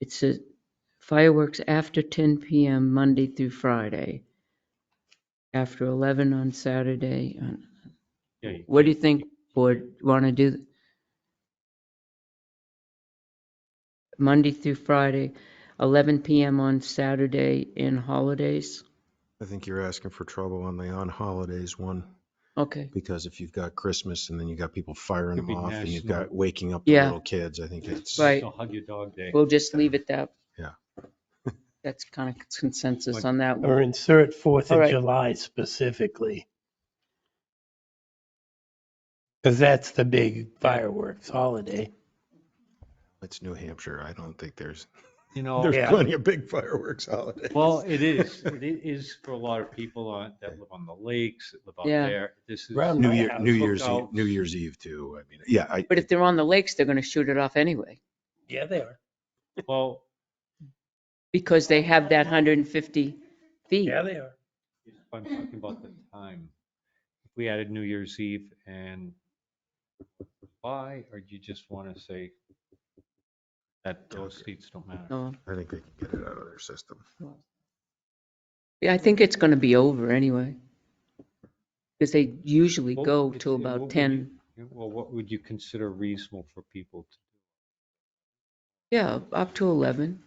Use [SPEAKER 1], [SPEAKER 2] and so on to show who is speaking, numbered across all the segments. [SPEAKER 1] It's uh, fireworks after 10 PM Monday through Friday, after 11 on Saturday. and-
[SPEAKER 2] Yeah, you-
[SPEAKER 1] What do you think, board, want to do? Monday through Friday, 11 PM on Saturday and holidays?
[SPEAKER 3] I think you're asking for trouble on the on holidays one,
[SPEAKER 1] Okay,
[SPEAKER 3] because if you've got Christmas and then you've got people firing
[SPEAKER 2] Could be
[SPEAKER 3] them off and you've
[SPEAKER 2] national.
[SPEAKER 3] got waking up the
[SPEAKER 1] Yeah.
[SPEAKER 3] little kids, I think it's.
[SPEAKER 1] Right.
[SPEAKER 2] So hug your dog day.
[SPEAKER 1] we'll just leave it that.
[SPEAKER 3] Yeah.
[SPEAKER 1] That's kind of consensus on that one.
[SPEAKER 4] Or insert Fourth
[SPEAKER 1] All
[SPEAKER 4] of
[SPEAKER 1] right.
[SPEAKER 4] July specifically. Because that's the big fireworks holiday.
[SPEAKER 3] It's New Hampshire. I don't think there's,
[SPEAKER 2] You
[SPEAKER 3] there's
[SPEAKER 2] know,
[SPEAKER 4] Yeah.
[SPEAKER 3] plenty of big fireworks holidays.
[SPEAKER 2] Oh, well, it is, it i- is for a lot of people on, that live on the lakes, that live out
[SPEAKER 1] Yeah.
[SPEAKER 2] there. This is.
[SPEAKER 4] Round
[SPEAKER 3] New
[SPEAKER 4] my
[SPEAKER 3] Year,
[SPEAKER 4] house,
[SPEAKER 3] New Year's, Eve-
[SPEAKER 2] cookouts.
[SPEAKER 3] New Year's Eve too. I mean, yeah, I,
[SPEAKER 1] But if they're on the lakes, they're going to shoot it off anyway,
[SPEAKER 4] Yeah, they are.
[SPEAKER 2] Well,
[SPEAKER 1] because they have that 150 feet.
[SPEAKER 4] Yeah, they are.
[SPEAKER 2] if I'm talking about the time. If we added New Year's Eve and why, or do you just want to say that those seats don't matter?
[SPEAKER 1] No.
[SPEAKER 3] I think they can get it out of their system.
[SPEAKER 1] Yeah, I think it's going to be over anyway. Because they usually
[SPEAKER 2] Well,
[SPEAKER 1] go
[SPEAKER 2] it's-
[SPEAKER 1] till
[SPEAKER 2] and what
[SPEAKER 1] about
[SPEAKER 2] would
[SPEAKER 1] 10.
[SPEAKER 2] you- Well, what would you consider reasonable for people to,
[SPEAKER 1] Yeah, up to 11.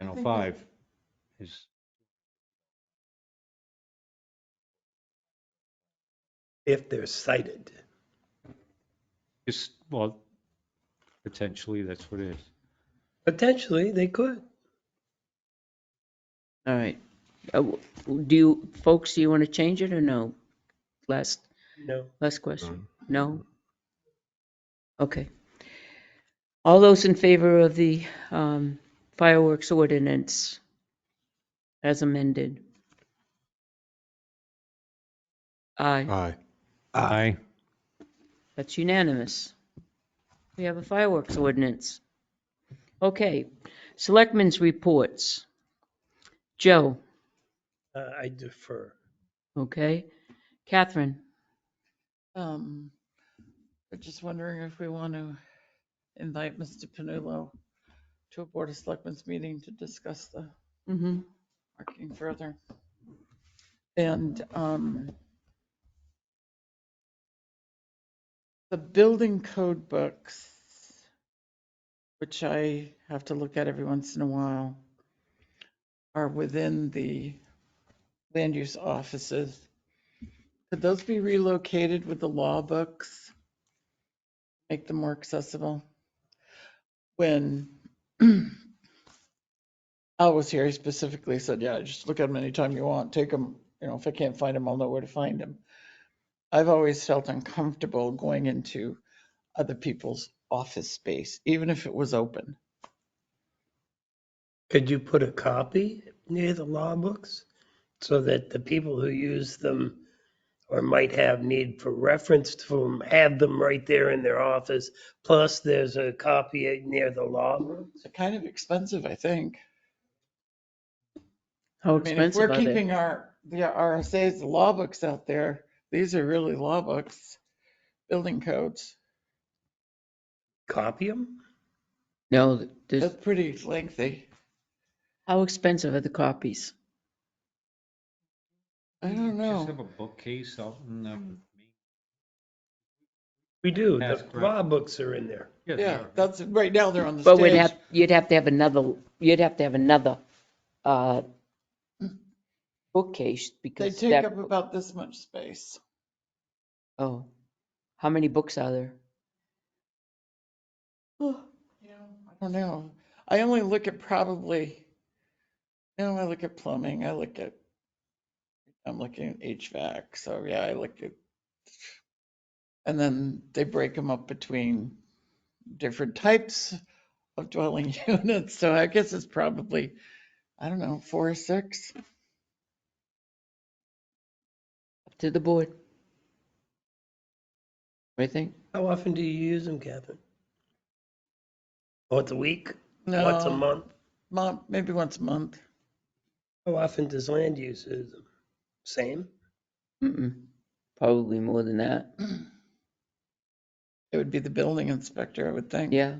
[SPEAKER 2] you know, five is,
[SPEAKER 4] If they're cited.
[SPEAKER 2] is, well, potentially, that's what it is.
[SPEAKER 4] Potentially, they could.
[SPEAKER 1] All right. Uh, w- Do you, folks, do you want to change it or no? Last,
[SPEAKER 4] No.
[SPEAKER 1] last question. No? Okay. All those in favor of the um, fireworks ordinance as amended? Aye.
[SPEAKER 3] Aye.
[SPEAKER 5] Ah.
[SPEAKER 2] Aye.
[SPEAKER 1] That's unanimous. We have a fireworks ordinance. Okay, selectmen's reports. Joe,
[SPEAKER 4] Uh, I defer.
[SPEAKER 1] okay? Catherine,
[SPEAKER 5] Um, we're just wondering if we want to invite Mr. Panullo to a Board of Selectmen's meeting to discuss the Mm-hmm.
[SPEAKER 1] mhm,
[SPEAKER 5] parking further. And, um, the building code books, which I have to look at every once in a while, are within the land use offices. Could those be relocated with the law books? Make them more accessible? When Al was here, he Oh, specifically said, yeah, just look at them anytime you want, take them, you know, if I can't find them, I'll know where to find them. I've always felt uncomfortable going into other people's office space, even if it was open.
[SPEAKER 4] Could you put a copy near the law books so that the people who use them or might have need for reference to them have them right there in their office? Plus, there's a copy near the law books.
[SPEAKER 5] It's kind of expensive, I think.
[SPEAKER 1] how
[SPEAKER 5] I mean, if we're
[SPEAKER 1] expensive are they?
[SPEAKER 5] keeping our, the RSA's, the law books out there, these are really law books, building codes.
[SPEAKER 4] Copy them?
[SPEAKER 1] No, there's-
[SPEAKER 5] That's pretty lengthy.
[SPEAKER 1] how expensive are the copies?
[SPEAKER 5] I don't
[SPEAKER 2] Just
[SPEAKER 5] know. Hmm.
[SPEAKER 2] have a bookcase out in um,
[SPEAKER 4] We do.
[SPEAKER 2] That's
[SPEAKER 4] The
[SPEAKER 2] correct.
[SPEAKER 4] law books are in there.
[SPEAKER 2] they
[SPEAKER 5] Yeah,
[SPEAKER 2] are.
[SPEAKER 5] that's, right now they're on the
[SPEAKER 1] But we'd
[SPEAKER 5] stage.
[SPEAKER 1] have, you'd have to have another, you'd have to have another uh, bookcase
[SPEAKER 5] They
[SPEAKER 1] because
[SPEAKER 5] take
[SPEAKER 1] that,
[SPEAKER 5] up about this much space.
[SPEAKER 1] oh, how many books are there?
[SPEAKER 5] Oh, yeah, I don't know. I only look at probably, you know, I look at plumbing, I look at, I'm looking at HVAC, so yeah, I look at. And then they break them up between different types of dwelling units, so I guess it's probably, I don't know, four or six.
[SPEAKER 1] Up To the board? What do you think?
[SPEAKER 4] How often do you use them, Catherine? Once a week? Once a
[SPEAKER 5] No,
[SPEAKER 4] month?
[SPEAKER 5] mon- maybe once a month.
[SPEAKER 4] How often does land use use them? Same?
[SPEAKER 1] Mm-mm, Probably more than that.
[SPEAKER 5] It would be the building inspector, I would think.
[SPEAKER 1] Yeah,